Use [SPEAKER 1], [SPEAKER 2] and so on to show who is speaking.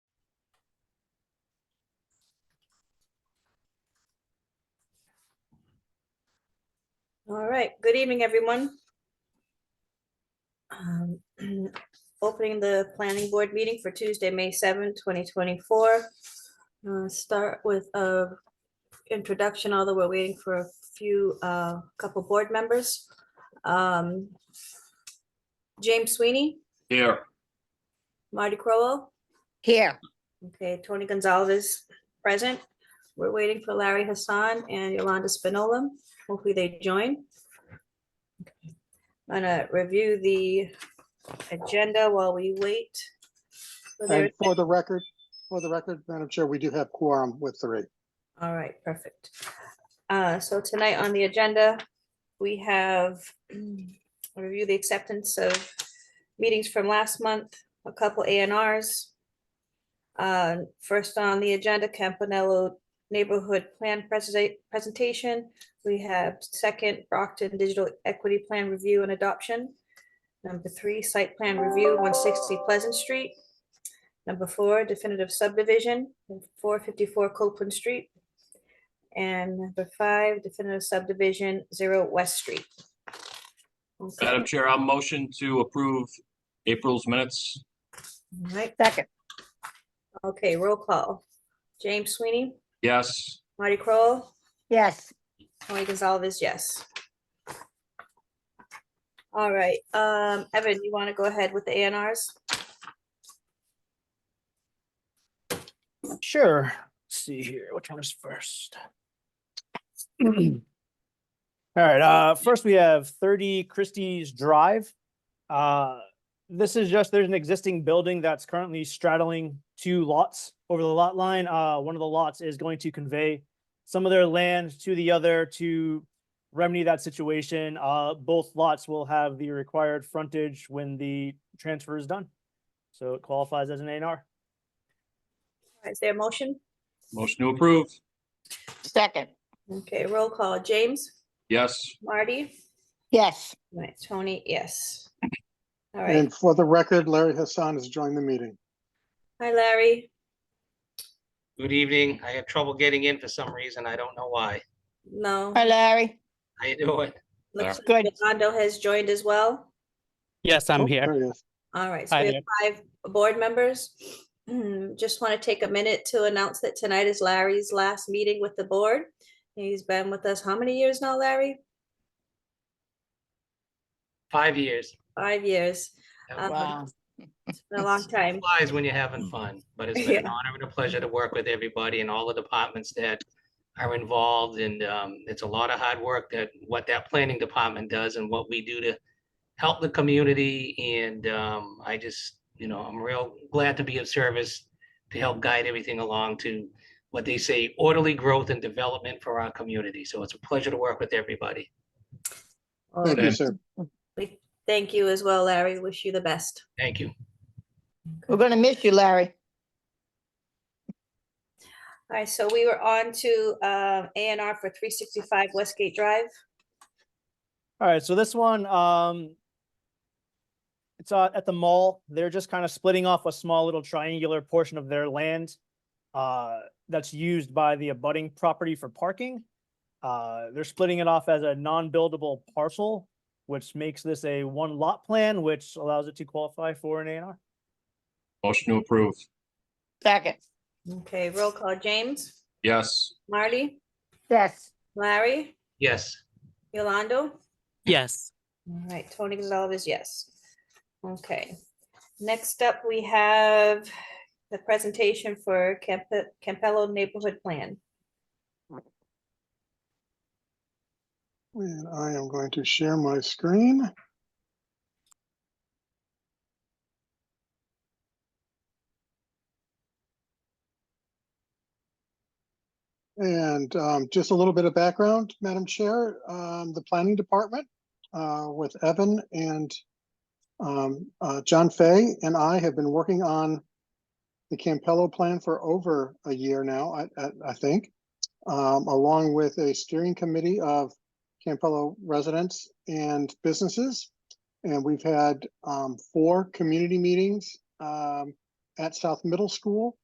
[SPEAKER 1] All right, good evening, everyone. Um, Opening the planning board meeting for Tuesday, May 7, 2024. Uh, Start with a introduction, although we're waiting for a few, a couple board members. Um, James Sweeney,
[SPEAKER 2] Here.
[SPEAKER 1] Marty Crowell,
[SPEAKER 3] Here,
[SPEAKER 1] okay, Tony Gonzalez present. We're waiting for Larry Hassan and Yolanda Spinola. Hopefully they join. I'm gonna review the agenda while we wait. for their-
[SPEAKER 4] And for the record, for the record, Madam Chair, we do have quorum with three.
[SPEAKER 1] All right, perfect. Uh, So tonight on the agenda, we have mm, review the acceptance of meetings from last month, a couple A and Rs. Uh, First on the agenda, Campanello Neighborhood Plan Presenta- Presentation. We have second Brockton Digital Equity Plan Review and Adoption. Number three, Site Plan Review, 160 Pleasant Street. Number four, definitive subdivision, four fifty-four Copeland Street. And number five, definitive subdivision, zero West Street. Okay,
[SPEAKER 2] Madam Chair, I'll motion to approve April's minutes.
[SPEAKER 1] all right,
[SPEAKER 3] second,
[SPEAKER 1] okay, roll call. James Sweeney,
[SPEAKER 2] Yes.
[SPEAKER 1] Marty Crowell,
[SPEAKER 3] yes,
[SPEAKER 1] Tony Gonzalez, yes. All right, um, Evan, you want to go ahead with the ANRs?
[SPEAKER 5] Sure. Let's see here. Which one is first? All right. Uh, first, we have 30 Christie's Drive. Uh, this is just, there's an existing building that's currently straddling two lots over the lot line. Uh, one of the lots is going to convey some of their land to the other to remedy that situation. Uh, both lots will have the required frontage when the transfer is done. So it qualifies as an A and R.
[SPEAKER 1] Is there a motion?
[SPEAKER 2] Motion to approve.
[SPEAKER 3] second,
[SPEAKER 1] Okay, roll call. James,
[SPEAKER 2] Yes.
[SPEAKER 1] Marty,
[SPEAKER 3] yes,
[SPEAKER 1] right, Tony, yes. All right.
[SPEAKER 4] And for the record, Larry Hassan has joined the meeting.
[SPEAKER 1] Hi, Larry.
[SPEAKER 6] Good evening. I had trouble getting in for some reason. I don't know why.
[SPEAKER 1] No.
[SPEAKER 3] hi Larry,
[SPEAKER 6] How you doing?
[SPEAKER 1] looks like
[SPEAKER 3] good,
[SPEAKER 1] Yolando has joined as well.
[SPEAKER 7] Yes,
[SPEAKER 4] Oh,
[SPEAKER 7] I'm here.
[SPEAKER 4] There he is.
[SPEAKER 1] All right, so
[SPEAKER 7] Hi
[SPEAKER 1] we have five board members. Mm, Just want to take a minute to announce that tonight is Larry's last meeting with the board. He's been with us how many years now, Larry?
[SPEAKER 6] Five years.
[SPEAKER 1] Five years.
[SPEAKER 6] That
[SPEAKER 1] Um,
[SPEAKER 3] wow,
[SPEAKER 1] It's been a long time.
[SPEAKER 6] Flies when you're having fun, but it's been an honor and a pleasure to work with everybody and all the departments that are involved and um, it's a lot of hard work that what that planning department does and what we do to help the community and um, I just, you know, I'm real glad to be of service to help guide everything along to what they say orderly growth and development for our community. So it's a pleasure to work with everybody.
[SPEAKER 1] Well,
[SPEAKER 4] Thank you, sir.
[SPEAKER 1] we Thank you as well, Larry. Wish you the best.
[SPEAKER 6] Thank you.
[SPEAKER 3] we're gonna miss you, Larry,
[SPEAKER 1] All right, so we were on to um, A and R for 365 Westgate Drive.
[SPEAKER 5] All right, so this one, um, it's uh, at the mall. They're just kind of splitting off a small little triangular portion of their land uh, that's used by the abutting property for parking. Uh, they're splitting it off as a non-buildable parcel, which makes this a one lot plan, which allows it to qualify for an A and R.
[SPEAKER 2] Motion to approve.
[SPEAKER 3] second,
[SPEAKER 1] Okay, roll call. James,
[SPEAKER 2] Yes.
[SPEAKER 1] Marty,
[SPEAKER 3] yes,
[SPEAKER 1] Larry,
[SPEAKER 6] Yes.
[SPEAKER 1] Yolando?
[SPEAKER 7] Yes,
[SPEAKER 1] All right, Tony Gonzalez, yes. Okay, next up, we have the presentation for Camp- Campello Neighborhood Plan.
[SPEAKER 4] And I am going to share my screen. And um, just a little bit of background, Madam Chair, um, the Planning Department uh, with Evan and um, uh, John Fay and I have been working on the Campello Plan for over a year now, I- I I think, um, along with a steering committee of Campello residents and businesses. And we've had um, four community meetings um, at South Middle School